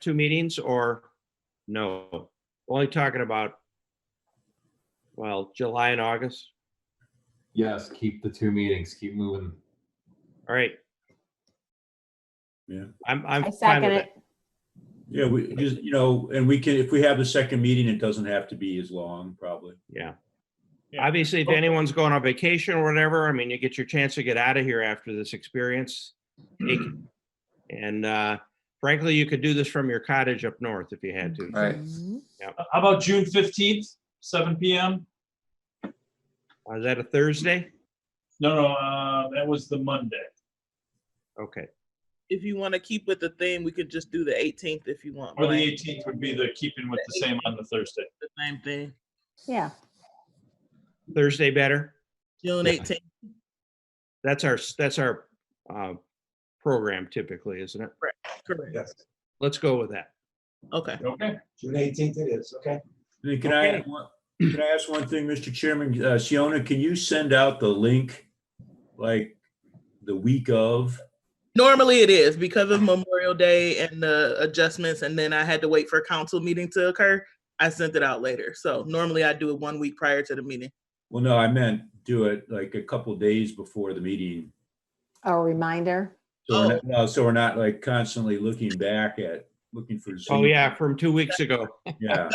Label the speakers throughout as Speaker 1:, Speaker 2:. Speaker 1: two meetings or no? Only talking about, well, July and August.
Speaker 2: Yes, keep the two meetings, keep moving.
Speaker 1: All right.
Speaker 3: Yeah.
Speaker 1: I'm, I'm
Speaker 4: I
Speaker 1: fine
Speaker 4: second
Speaker 1: with
Speaker 4: it.
Speaker 1: it.
Speaker 3: Yeah, we just, you know, and we can, if we have the second meeting, it doesn't have to be as long, probably.
Speaker 1: Yeah.
Speaker 5: Yeah.
Speaker 1: Obviously, if anyone's going on vacation or whatever, I mean, you get your chance to get out of here after this experience. Take it. And uh, frankly, you could do this from your cottage up north if you had to.
Speaker 2: Right.
Speaker 4: Mm-hmm.
Speaker 5: How about June fifteenth, seven PM?
Speaker 1: Uh, Is that a Thursday?
Speaker 5: No, no, uh, that was the Monday.
Speaker 1: Okay,
Speaker 6: if you want to keep with the theme, we could just do the 18th if you want.
Speaker 5: Or the
Speaker 6: Blaine.
Speaker 5: eighteenth would be the keeping with the same on the Thursday.
Speaker 6: The same thing.
Speaker 4: Yeah,
Speaker 1: Thursday better.
Speaker 6: June
Speaker 2: Yeah.
Speaker 6: 18th.
Speaker 1: That's our, that's our uh, program typically, isn't it?
Speaker 6: Correct.
Speaker 7: Yes,
Speaker 1: Let's go with that.
Speaker 6: Okay.
Speaker 5: Okay.
Speaker 7: June eighteenth it is, okay?
Speaker 3: And Can I,
Speaker 1: Okay.
Speaker 3: can I ask one thing, Mr. Chairman? Uh, Shiona, can you send out the link, like, the week of?
Speaker 6: Normally it is because of Memorial Day and the adjustments, and then I had to wait for a council meeting to occur. I sent it out later. So normally I do it one week prior to the meeting.
Speaker 3: Well, no, I meant do it like a couple days before the meeting.
Speaker 4: a reminder.
Speaker 3: So
Speaker 1: Oh.
Speaker 6: Oh.
Speaker 3: we're not, no, so we're not like constantly looking back at, looking for.
Speaker 1: Oh,
Speaker 3: Zoom.
Speaker 1: yeah, from two weeks ago.
Speaker 3: Yeah,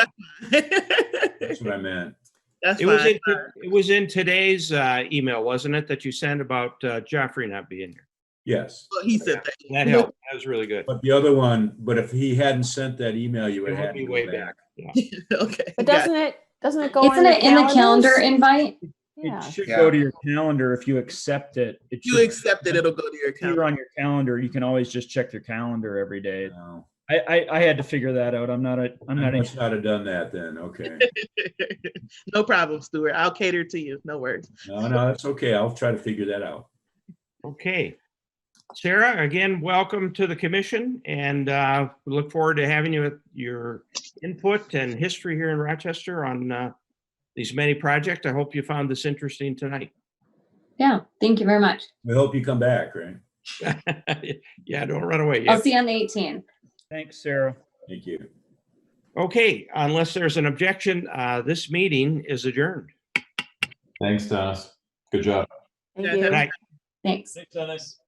Speaker 6: That's
Speaker 3: that's what I meant.
Speaker 1: It was,
Speaker 6: fine.
Speaker 1: in it was in today's uh, email, wasn't it, that you sent about uh, Joffrey not being here?
Speaker 3: Yes.
Speaker 6: Well, Oh, he said that.
Speaker 1: That helped. That was really good.
Speaker 3: But the other one, but if he hadn't sent that email, you would
Speaker 1: It
Speaker 3: have
Speaker 1: would
Speaker 3: had
Speaker 1: be
Speaker 3: to
Speaker 1: way
Speaker 3: go
Speaker 1: back.
Speaker 3: back.
Speaker 6: okay.
Speaker 4: But
Speaker 6: got it.
Speaker 4: doesn't it, doesn't it go? on
Speaker 8: Isn't it in the
Speaker 4: calendars?
Speaker 8: calendar invite?
Speaker 4: Yeah.
Speaker 9: It should go to your calendar if you accept it. It
Speaker 6: you
Speaker 9: should
Speaker 6: accept it, it'll go to your
Speaker 9: appear
Speaker 6: account.
Speaker 9: on your calendar. You can always just check your calendar every day.
Speaker 3: No.
Speaker 9: I, I, I had to figure that out. I'm not a, I'm
Speaker 3: I
Speaker 9: not a
Speaker 3: must not have done that then, okay.
Speaker 6: no problem, Stuart. I'll cater to you. No worries.
Speaker 3: No, no, that's okay. I'll try to figure that out.
Speaker 1: Okay. Sarah, again, welcome to the commission and uh, we look forward to having you, with your input and history here in Rochester on uh, these many projects. I hope you found this interesting tonight.
Speaker 8: Yeah, thank you very much.
Speaker 3: We hope you come back, right?
Speaker 1: Yeah, don't run away.
Speaker 8: I'll
Speaker 1: yet.
Speaker 8: see you on the 18th.
Speaker 9: Thanks, Sarah.
Speaker 3: Thank you.
Speaker 1: Okay, unless there's an objection, uh, this meeting is adjourned.
Speaker 2: Thanks, Dennis. Good job.
Speaker 4: Thank
Speaker 6: Yeah,
Speaker 4: you.
Speaker 1: Good night.
Speaker 8: Thanks.
Speaker 5: Thanks, Dennis.